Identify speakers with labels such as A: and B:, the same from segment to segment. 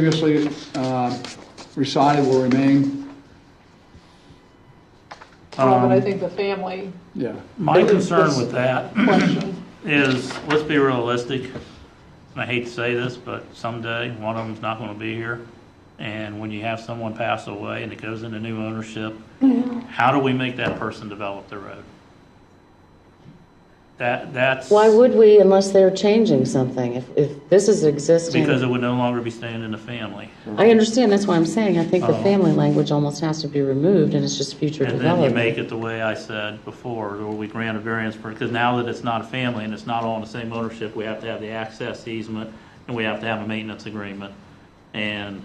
A: previously um, recited will remain,
B: Well, but I
C: Um,
B: think the family
A: yeah.
C: My concern with that
B: question,
C: is, let's be realistic, and I hate to say this, but someday, one of them's not gonna be here. And when you have someone pass away and it goes into new ownership,
D: Mm-hmm.
C: how do we make that person develop the road? That, that's.
D: Why would we unless they're changing something? If, if this is existing.
C: Because it would no longer be staying in the family.
D: I understand, that's why I'm saying, I think the
C: Oh.
D: family language almost has to be removed and it's just future
C: And then you
D: development.
C: make it the way I said before, or we grant a variance for, because now that it's not a family and it's not all in the same ownership, we have to have the access easement, and we have to have a maintenance agreement. And,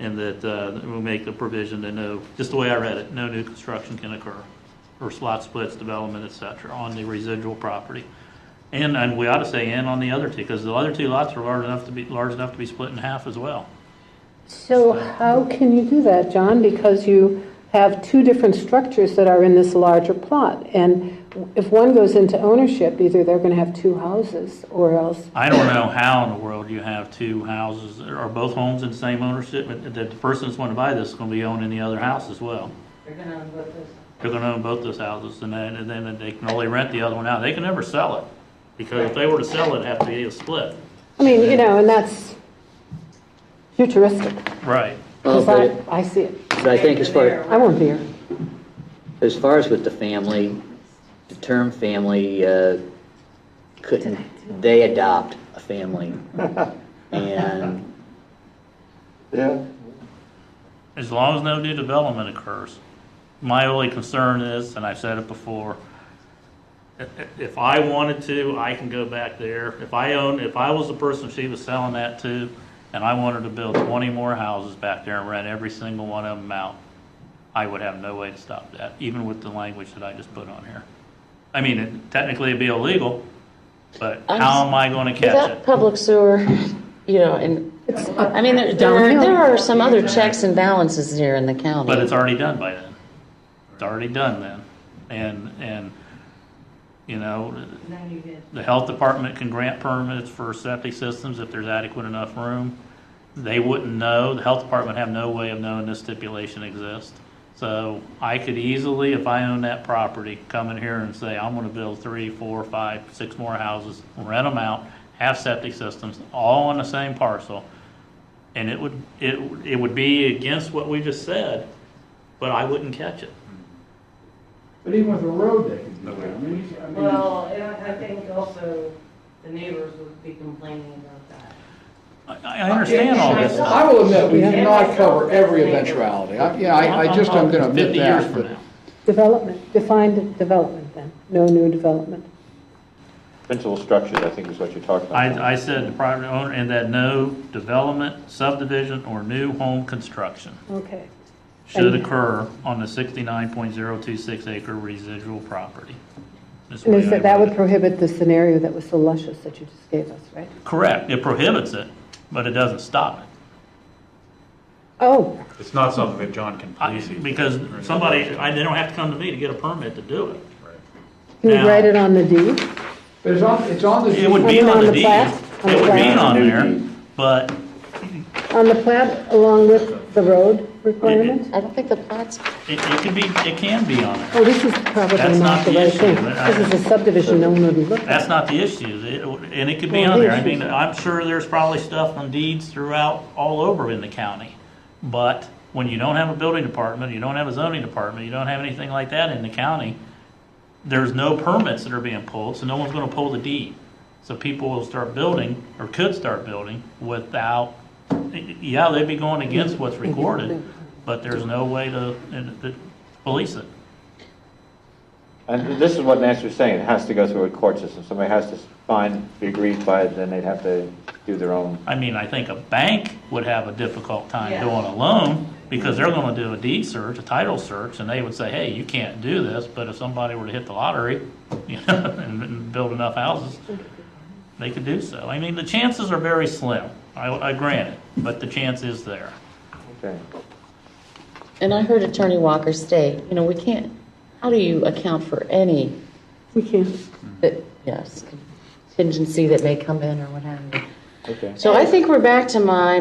C: and that, uh, we make the provision that no, just the way I read it, no new construction can occur, or slot splits, development, et cetera, on the residual property. And, and we ought to say, and on the other two, because the other two lots are large enough to be, large enough to be split in half as well.
E: So how can you do that, John? Because you have two different structures that are in this larger plot. And if one goes into ownership, either they're going to have two houses or else,
C: I don't know how in the world you have two houses, or both homes in the same ownership, but that the person that's going to buy this is going to be owning the other house as well. They're going to own both those houses, and then, and then they can only rent the other one out. They can never sell it, because if they were to sell it, it'd have to be a split.
E: I mean, you know, and that's futuristic,
C: Right.
F: Well,
E: because I,
F: Oh, But
E: I see it.
F: but I think as far,
E: I won't be here.
F: as far as with the family, the term family, uh, couldn't, they adopt a family. And,
G: Yeah,
C: As long as no new development occurs. My only concern is, and I've said it before, i- i- if I wanted to, I can go back there. If I own, if I was the person she was selling that to, and I wanted to build twenty more houses back there and rent every single one of them out, I would have no way to stop that, even with the language that I just put on here. I mean, it- technically it'd be illegal, but
D: I'm
C: how am I gonna catch
D: Without
C: it?
D: public sewer, you know, and, I mean, there, there are, there are some other checks and balances here in the county.
C: But it's already done by then. It's already done then. And, and, you know, the health department can grant permits for septic systems if there's adequate enough room. They wouldn't know, the health department have no way of knowing this stipulation exists. So I could easily, if I own that property, come in here and say, I'm gonna build three, four, five, six more houses, rent them out, have septic systems, all on the same parcel. And it would, it, it would be against what we just said, but I wouldn't catch it.
H: But even with a road, they can do that. I mean, you- I mean,
I: Well, and I I think also the neighbors would be complaining about that.
C: I, I understand all this stuff.
A: I will admit, we cannot cover every eventuality. I- Yeah, I I just, I'm going to admit
C: Fifty years
A: that,
C: from
A: but
C: now.
E: Development, defined development then, no new development.
G: principal structures, I think is what you're talking about.
C: I, I said the private owner, and that no development, subdivision, or new home construction
E: Okay.
C: should occur on the sixty-nine point zero two six acre residual property. That's the
E: And
C: way
E: is that,
C: I
E: that
C: read
E: would
C: it.
E: prohibit the scenario that was so luscious that you just gave us, right?
C: Correct, it prohibits it, but it doesn't stop it.
E: Oh,
J: It's not something that John can
C: I-
J: police.
C: Because somebody, I, they don't have to come to me to get a permit to do it.
E: can you
C: Now-
E: write it on the deed?
A: but it's on, it's on the.
C: It would be
E: On
C: on the
E: the
C: deed,
E: plat? On
C: it
E: the
C: would be
E: plat?
C: on
G: New
C: there,
G: deed.
C: but
E: On the plat along with the road requirement?
D: I don't think the plat's,
C: it, it can be, it can be on there.
E: Oh, this is probably
C: That's not
E: not the
C: the
E: right
C: issue,
E: thing.
C: but I-
E: This is a subdivision no one would look at.
C: That's not the issue, It- and it could be
E: Well,
C: on
E: the
C: there. I
E: issue-
C: mean, I'm sure there's probably stuff on deeds throughout, all over in the county. But when you don't have a building department, you don't have a zoning department, you don't have anything like that in the county, there's no permits that are being pulled, so no one's gonna pull the deed. So people will start building, or could start building, without, yeah, they'd be going against what's recorded, but there's no way to, to police it.
G: And this is what Nancy was saying, it has to go through a court system, somebody has to find, be agreed by, it, then they'd have to do their own.
C: I mean, I think a bank would have a difficult time
I: Yeah.
C: doing a loan because they're gonna do a deed search, a title search, and they would say, hey, you can't do this, but if somebody were to hit the lottery, you know, and, and build enough houses, they could do so. I mean, the chances are very slim, I, I grant it, but the chance is there.
G: Okay.
D: and I heard Attorney Walker state, you know, we can't, how do you account for any
E: We can't.
D: that, yes, contingency that may come in or what have you?
G: Okay.
D: So I think we're back to my